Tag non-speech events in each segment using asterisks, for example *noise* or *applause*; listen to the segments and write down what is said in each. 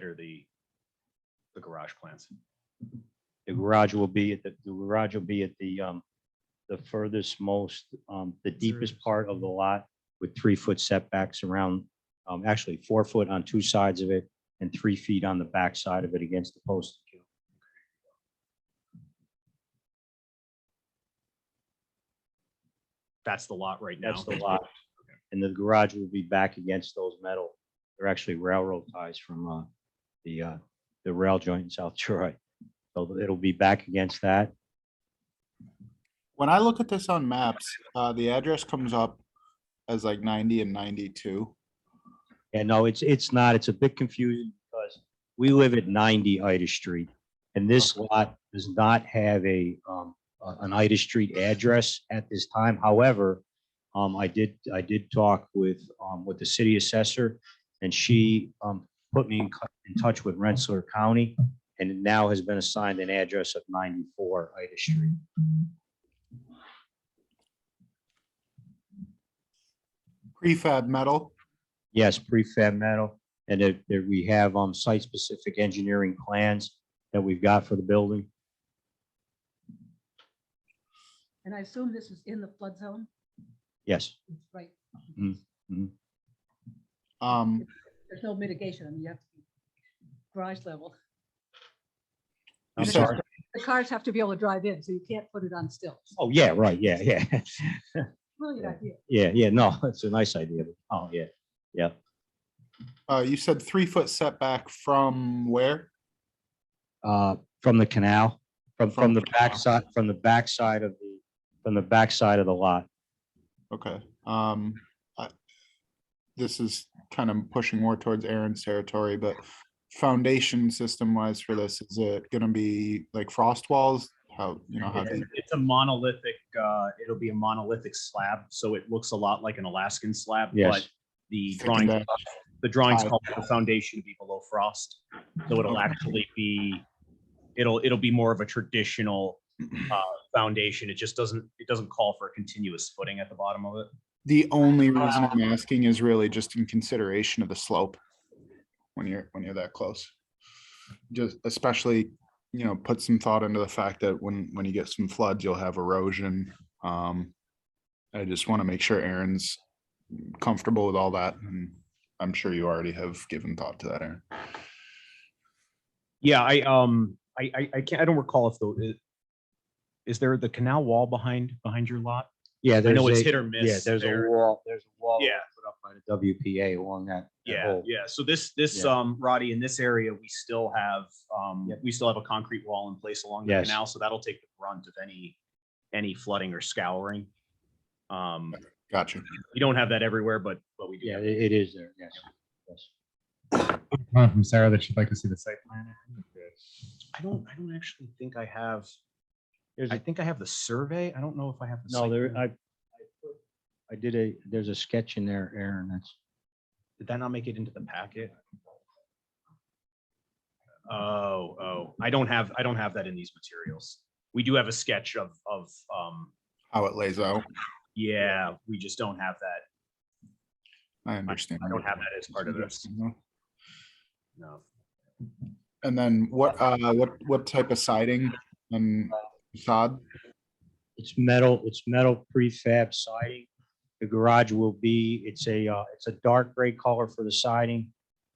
consider the, the garage plans. The garage will be at the, the garage will be at the, um, the furthest most, um, the deepest part of the lot with three foot setbacks around, um, actually four foot on two sides of it and three feet on the back side of it against the post. That's the lot right now. That's the lot. And the garage will be back against those metal. They're actually railroad ties from, uh, the, uh, the rail joint in South Troy. So it'll be back against that. When I look at this on maps, uh, the address comes up as like ninety and ninety-two. Yeah, no, it's, it's not. It's a bit confusing because we live at ninety Ida Street. And this lot does not have a, um, a- an Ida Street address at this time. However, um, I did, I did talk with, um, with the city assessor and she, um, put me in, co- in touch with Rensselaer County. And it now has been assigned an address of ninety-four Ida Street. Prefab metal, Yes, prefab metal, and that, that we have, um, site-specific engineering plans that we've got for the building. And I assume this is in the flood zone, Yes. right? Mm. um, There's no mitigation, I mean, you have to be garage level. I'm Yes, sorry. The cars have to be able to drive in, so you can't put it on stilts. Oh, yeah, right. Yeah, yeah. *laughs* Brilliant idea. Yeah, yeah. No, *laughs* it's a nice idea. but- Oh, yeah. uh, you said three-foot setback from where? Uh, from the canal, from, from From the the canal. backside, from the backside of the, from the backside of the lot. Okay, um, I, this is kind of pushing more towards Aaron's territory, but foundation system-wise for this, is it gonna be like frost walls? How, you know, how, deep? It's a monolithic, uh, it'll be a monolithic slab, so it looks a lot like an Alaskan slab, but Yes. the Thick drawing, and bad. the drawings High. call for the foundation to be below frost. So it'll Okay. actually be, it'll, it'll be more of a traditional, uh, foundation. It just doesn't, it doesn't call for a continuous footing at the bottom of it. the only reason I'm asking is really just in consideration of the slope. When you're, when you're that close. Just especially, you know, put some thought into the fact that when, when you get some floods, you'll have erosion. Um, I just want to make sure Aaron's comfortable with all that and I'm sure you already have given thought to that, Aaron. Yeah, I, um, I, I, I can't, I don't recall if the, is there the canal wall behind, behind your lot? Yeah, I there's know it's a, hit or miss. yeah, there's a there. wall, there's a wall. Yeah. Put up by the WPA along that. that Yeah, whole- yeah. So this, this, Yeah. um, Roddy, in this area, we still have, um, Yep. we still have a concrete wall in place along the Yes. canal, so that'll take the brunt of any, any flooding or scouring. Um, Gotcha. we don't have that everywhere, but, but we do. Yeah, have- it it is there. Yes. Yes. comment from Sarah that she'd like to see the site plan. I don't, I don't actually think I have, There's I a, think I have the survey. I don't know if I have. the no, site there, plan. I, I put- I did a, there's a sketch in there, Aaron, that's. Did that not make it into the packet? Oh, oh, I don't have, I don't have that in these materials. We do have a sketch of, of, um, How it lays out. yeah, we just don't have that. I understand. I don't have that as part of this. No. And then what, uh, what, what type of siding and facade? It's metal, it's metal prefab siding. The garage will be, it's a, uh, it's a dark gray color for the siding.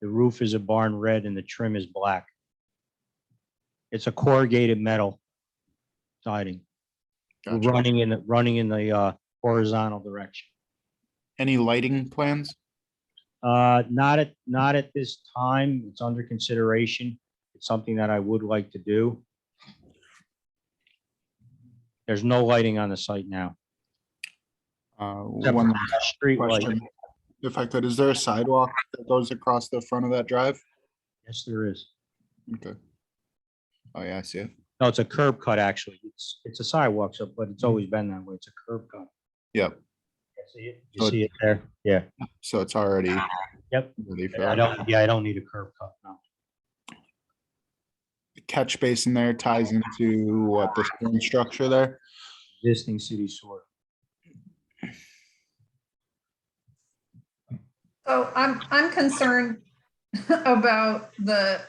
The roof is a barn red and the trim is black. It's a corrugated metal siding, We're Gotcha. running in, the running in the uh, horizontal direction. Any lighting plans? Uh, Not at, not at this time. It's under consideration. It's something that I would like to do. There's no lighting on the site now. Uh, except for One last Street light. question, if I could, is there a sidewalk that goes across the front of that drive? Yes, there is. Okay. Oh, yeah, I see it. No, it's a curb cut, actually. It's, it's a sidewalk, so, but it's always been that way. It's a curb cut. Yep. Mm-hmm. Yeah, See it? So You see it there? Yeah. So it's already. Yep. ready for I that. don't, yeah, I don't need a curb cut, no. The Catch basin there ties into what the stone structure there. Existing city sewer. So I'm, I'm concerned *laughs* about the